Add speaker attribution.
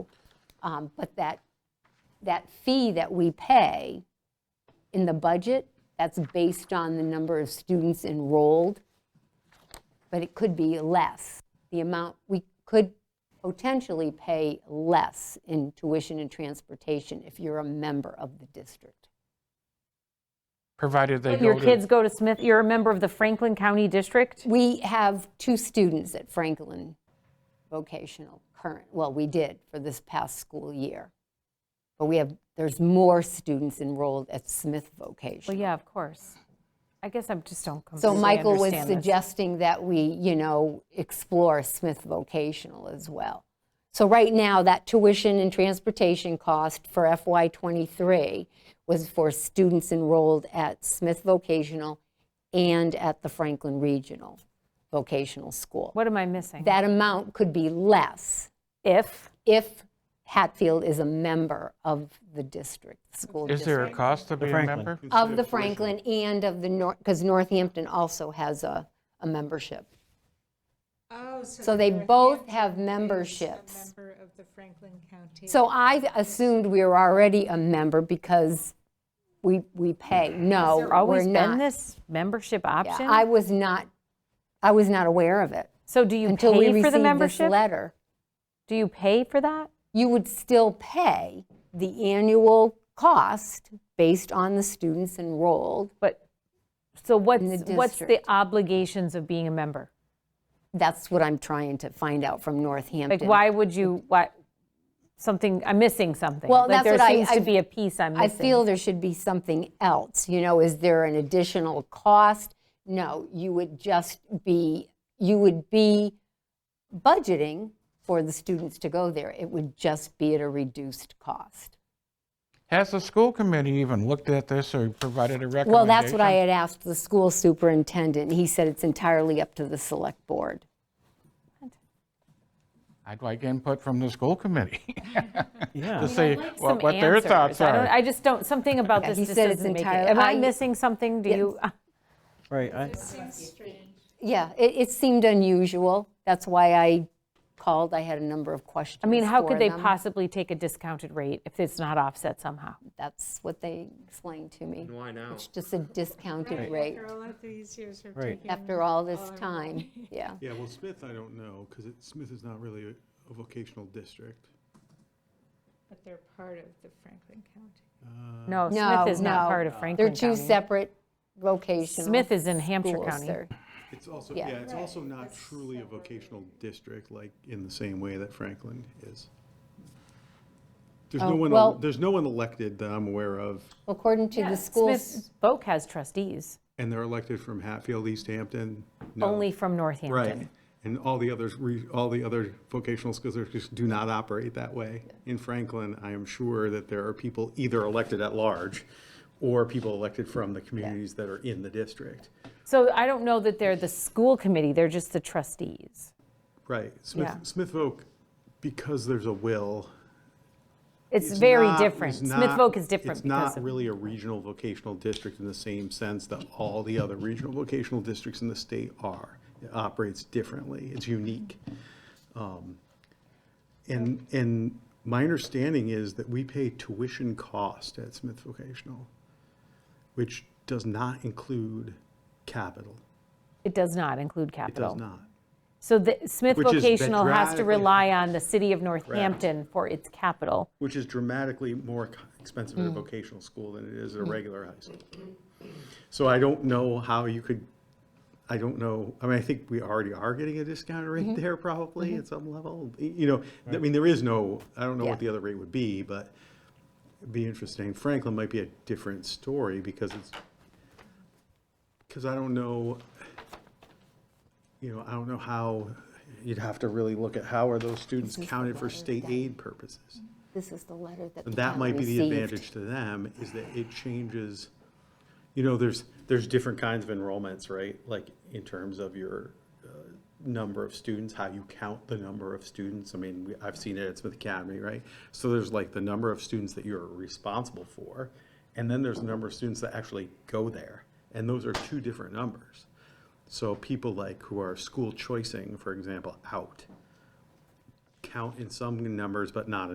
Speaker 1: Um, But that, that fee that we pay in the budget, that's based on the number of students enrolled, but it could be less. The amount, we could potentially pay less in tuition and transportation if you're a member of the district.
Speaker 2: provided they
Speaker 3: But
Speaker 2: go
Speaker 3: Your
Speaker 2: to-
Speaker 3: kids go to Smith, you're a member of the Franklin County District?
Speaker 1: We have two students at Franklin Vocational current, well, we did for this past school year. But we have, there's more students enrolled at Smith
Speaker 3: Well,
Speaker 1: Vocational.
Speaker 3: yeah, of course. I guess I just don't
Speaker 1: So
Speaker 3: completely
Speaker 1: Michael was
Speaker 3: understand this.
Speaker 1: suggesting that we, you know, explore Smith Vocational as well. So right now, that tuition and transportation cost for FY '23 was for students enrolled at Smith Vocational and at the Franklin Regional Vocational School.
Speaker 3: What am I missing?
Speaker 1: That amount could be less
Speaker 3: If,
Speaker 1: if Hatfield is a member of the district, the school
Speaker 2: Is there a
Speaker 1: district.
Speaker 2: cost to be a
Speaker 4: Franklin.
Speaker 2: member?
Speaker 1: Of the Franklin and of the North, because Northampton also has a, a membership.
Speaker 5: Oh, so.
Speaker 1: So they
Speaker 5: Northampton
Speaker 1: both have
Speaker 5: is
Speaker 1: memberships.
Speaker 5: A member of the Franklin County.
Speaker 1: So I assumed we were already a member because we, we pay. No,
Speaker 3: there always
Speaker 1: we're
Speaker 3: been
Speaker 1: not.
Speaker 3: this membership
Speaker 1: Yeah, I
Speaker 3: option?
Speaker 1: was not, I was not aware of it
Speaker 3: So do you
Speaker 1: until we
Speaker 3: pay for
Speaker 1: received
Speaker 3: the
Speaker 1: this
Speaker 3: membership?
Speaker 1: letter.
Speaker 3: Do you pay for that?
Speaker 1: you would still pay the annual cost based on the students enrolled.
Speaker 3: But, so what's,
Speaker 1: the
Speaker 3: what's the
Speaker 1: district.
Speaker 3: obligations of being a member?
Speaker 1: That's what I'm trying to find out from Northampton.
Speaker 3: Like, why would you, why, something, I'm missing something.
Speaker 1: Well,
Speaker 3: Like,
Speaker 1: that's what I-
Speaker 3: There seems
Speaker 1: I-
Speaker 3: to be a piece I'm
Speaker 1: I
Speaker 3: missing.
Speaker 1: feel there should be something else. You know, is there an additional cost? No, you would just be, you would be budgeting for the students to go there. It would just be at a reduced cost.
Speaker 2: Has the school committee even looked at this or provided a recommendation?
Speaker 1: Well, that's what I had asked the school superintendent. He said it's entirely up to the select board.
Speaker 2: I'd like input from the school committee
Speaker 4: Yeah.
Speaker 2: to see
Speaker 3: some
Speaker 2: what what their
Speaker 3: answers.
Speaker 2: thoughts
Speaker 3: I don't-
Speaker 2: are.
Speaker 3: I just don't, something about
Speaker 1: Yeah,
Speaker 3: this
Speaker 1: he
Speaker 3: just
Speaker 1: said it's
Speaker 3: doesn't make it.
Speaker 1: entirely-
Speaker 3: Am I
Speaker 1: I-
Speaker 3: missing something? Do you,
Speaker 4: Right. I-
Speaker 1: Yeah, it, it seemed unusual. That's why I called. I had a number of questions.
Speaker 3: I mean, how
Speaker 1: for
Speaker 3: could they
Speaker 1: them.
Speaker 3: possibly take a discounted rate if it's not offset somehow?
Speaker 1: That's what they explained to me.
Speaker 6: Why now?
Speaker 1: It's just a discounted rate
Speaker 5: After all of these years of
Speaker 4: Right.
Speaker 5: taking.
Speaker 1: after all this
Speaker 5: our-
Speaker 1: time. Yeah.
Speaker 7: Yeah, well, Smith, I don't know, because Smith is not really a- a vocational district.
Speaker 5: But they're part of the Franklin County.
Speaker 3: No,
Speaker 1: No,
Speaker 3: Smith is not
Speaker 1: no.
Speaker 3: part of Franklin
Speaker 1: They're two
Speaker 3: County.
Speaker 1: separate vocational.
Speaker 3: Smith is in Hampshire
Speaker 1: schools.
Speaker 3: County.
Speaker 1: They're-
Speaker 7: It's also,
Speaker 1: Yeah.
Speaker 7: yeah, it's also not truly a vocational district, like, in the same way that Franklin is. There's
Speaker 1: Oh,
Speaker 7: no one,
Speaker 1: well-
Speaker 7: el- there's no one elected that I'm aware of,
Speaker 1: According to the
Speaker 3: Smith
Speaker 1: schools,
Speaker 3: Boak has trustees,
Speaker 7: and they're elected from Hatfield, East Hampton. no.
Speaker 3: only from
Speaker 7: Right,
Speaker 3: Northampton.
Speaker 7: and all the others, re- all the other vocational schools are- just do not operate that way. In Franklin, I am sure that there are people either elected at large or people elected from the communities that are in the district.
Speaker 3: So I don't know that they're the school committee, they're just the trustees.
Speaker 7: Right,
Speaker 3: Yeah.
Speaker 7: Smith, Smith Oak, because there's a will.
Speaker 3: It's
Speaker 7: is
Speaker 3: very
Speaker 7: not-
Speaker 3: different.
Speaker 7: is
Speaker 3: Smith
Speaker 7: not-
Speaker 3: Voc is different
Speaker 7: It's
Speaker 3: because
Speaker 7: not
Speaker 3: of,
Speaker 7: really a regional vocational district in the same sense that all the other regional vocational districts in the state are. It operates differently, it's unique. Um, And, and my understanding is that we pay tuition cost at Smith Vocational, which does not include capital.
Speaker 3: it does not include
Speaker 7: It does
Speaker 3: capital.
Speaker 7: not.
Speaker 3: So the Smith
Speaker 7: Which is
Speaker 3: Vocational has to
Speaker 7: dramatically-
Speaker 3: rely on the city of Northampton for its capital.
Speaker 7: which is dramatically more co- expensive at a vocational school than it is at a regular high school. So I don't know how you could, I don't know, I mean, I think we already are getting a discount rate there probably at some level. Y- You know, I mean, there is no, I don't know
Speaker 1: Yeah.
Speaker 7: what the other rate would be, but it'd be interesting. Franklin might be a different story because it's, because I don't know, you know, I don't know how, you'd have to really look at how are those students counted for state aid purposes?
Speaker 1: this is the letter that the
Speaker 7: And that
Speaker 1: town
Speaker 7: might be the
Speaker 1: received.
Speaker 7: advantage to them, is that it changes, you know, there's, there's different kinds of enrollments, right? Like, in terms of your uh, number of students, how you count the number of students. I mean, we- I've seen it at Smith Academy, right? So there's like the number of students that you're responsible for, and then there's the number of students that actually go there. And those are two different numbers. So people like who are school choicing, for example, out, count in some numbers, but not